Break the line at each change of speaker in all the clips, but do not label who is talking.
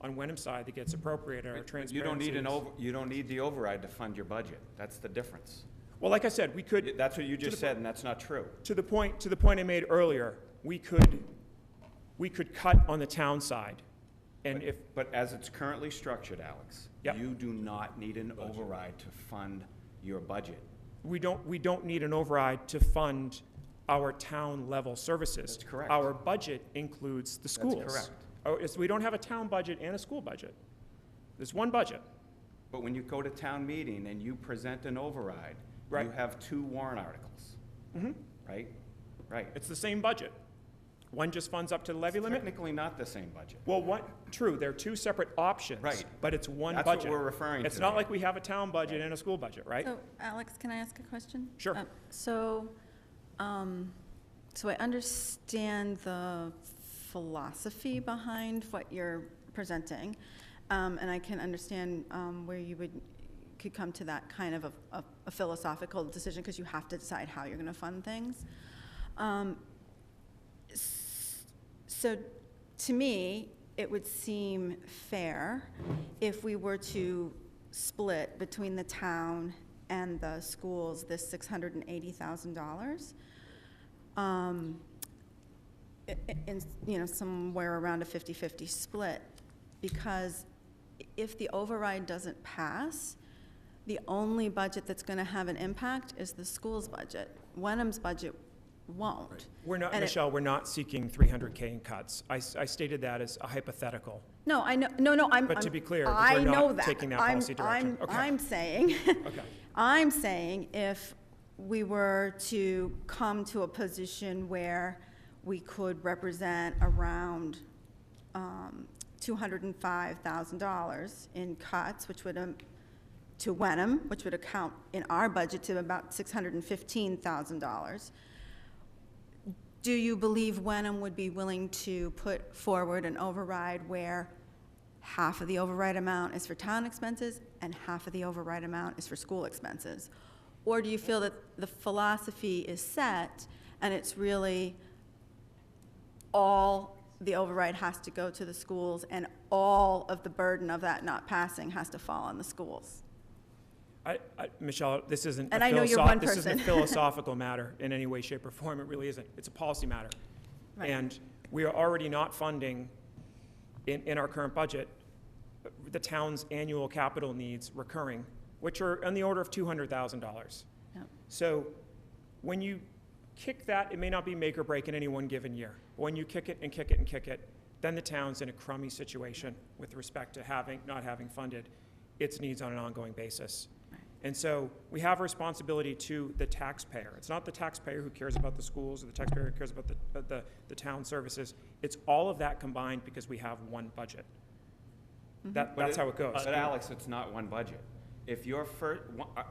on Wenham's side that gets appropriated our transparency.
You don't need an
is-
over, you don't need the override to fund your budget. That's the difference.
Well, like I said, we could.
That's what you
to the point-
just said, and that's not true.
To the point, to the point I made earlier, we could, we could cut on the town side. And if,
But as it's currently structured, Alex,
Yep.
you do not need an override to fund your budget.
we don't, we don't need an override to fund our town-level services.
That's correct.
Our budget includes the schools.
correct.
Oh, it's, we don't have a town budget and a school budget. There's one budget.
But when you go to town meeting and you present an override, you
Right. Mm-hmm.
have two warrant articles. Right? Right.
It's the same budget. One just funds up to the levy limit.
Technically not the same budget.
Well, one, true, they're two separate options.
Right.
But it's one budget.
That's what we're referring
It's
to.
not like we have a town budget and a school budget, right?
So, Alex, can I ask a question?
Sure.
Uh, So, um, so I understand the philosophy behind what you're presenting, um, and I can understand um, where you would, could come to that kind of a- a a philosophical decision, because you have to decide how you're going to fund things. Um, so to me, it would seem fair if we were to split between the town and the schools this six hundred and eighty thousand dollars. Um, i- i- in, you know, somewhere around a 50-50 split, because if the override doesn't pass, the only budget that's gonna have an impact is the school's budget. Wenham's budget won't.
We're not,
And it-
Michelle, we're not seeking 300K in cuts. I, s- I stated that as a hypothetical.
No, I know, no, no, I'm.
But to
I'm-
be clear, that
I
we're not
know that.
taking that
I'm-
policy direction.
I'm,
Okay.
I'm saying,
Okay.
I'm saying if we were to come to a position where we could represent around um, $205,000 in cuts, which would, um, to Wenham, which would account in our budget to about $615,000. Do you believe Wenham would be willing to put forward an override where half of the override amount is for town expenses and half of the override amount is for school expenses? Or do you feel that the philosophy is set and it's really all the override has to go to the schools and all of the burden of that not passing has to fall on the schools?
I, I, Michelle, this isn't a
And I know you're one
philosoph- this isn't a
person.
philosophical matter in any way, shape, or form. It really isn't. It's a policy matter.
Right.
And we are already not funding, in, in our current budget, uh, the town's annual capital needs recurring, which are on the order of $200,000.
Yep.
So when you kick that, it may not be make or break in any one given year. But when you kick it and kick it and kick it, then the town's in a crummy situation with respect to having, not having funded its needs on an ongoing basis. And so we have a responsibility to the taxpayer. It's not the taxpayer who cares about the schools or the taxpayer who cares about the, uh, the, the town services. It's all of that combined because we have one budget. That,
But
that's how it goes.
But Alex, it's not one budget. If your first,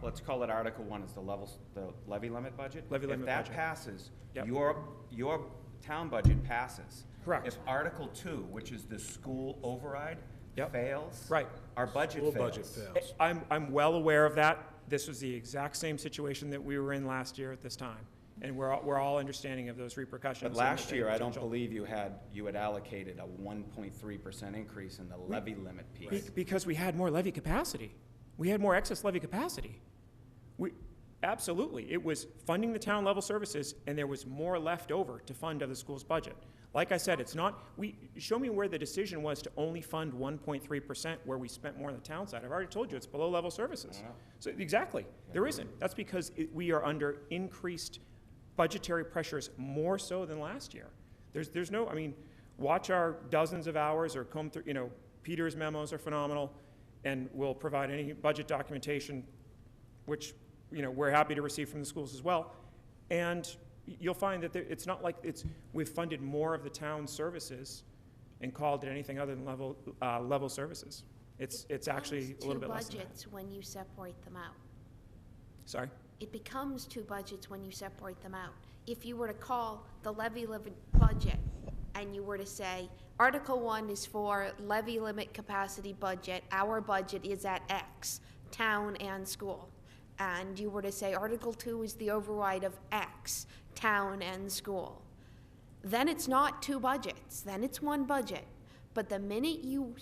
let's call it Article One is the levels, the levy limit budget.
Levy limit
If that
budget.
passes,
Yep.
your, your town budget passes.
Correct.
If Article Two, which is the school override,
Yep.
fails.
Right.
Our budget
School
fails.
budget fails.
I'm, I'm well aware of that. This was the exact same situation that we were in last year at this time. And we're, all- we're all understanding of those repercussions.
But
and
last
the
year, I don't
potential.
believe you had, you had allocated a one point three percent increase in the levy limit
Be-
piece.
Because we had more levy capacity. We had more excess levy capacity. We, absolutely, it was funding the town level services, and there was more left over to fund other schools' budget. Like I said, it's not, we, show me where the decision was to only fund one point three percent where we spent more on the town side. I've already told you, it's below level services. So, exactly, there isn't. That's because it- we are under increased budgetary pressures more so than last year. There's, there's no, I mean, watch our dozens of hours or comb through, you know, Peter's memos are phenomenal, and we'll provide any budget documentation, which, you know, we're happy to receive from the schools as well. And y- you'll find that there- it's not like it's, we've funded more of the town's services and called it anything other than level, uh, level services. It's, it's actually
becomes
a little bit less than
Two
that.
budgets when you separate them out.
Sorry?
It becomes two budgets when you separate them out. If you were to call the levy limit budget and you were to say, Article One is for levy limit capacity budget, our budget is at X, town and school. And you were to say, Article Two is the override of X, town and school. Then it's not two budgets, then it's one budget. But the minute you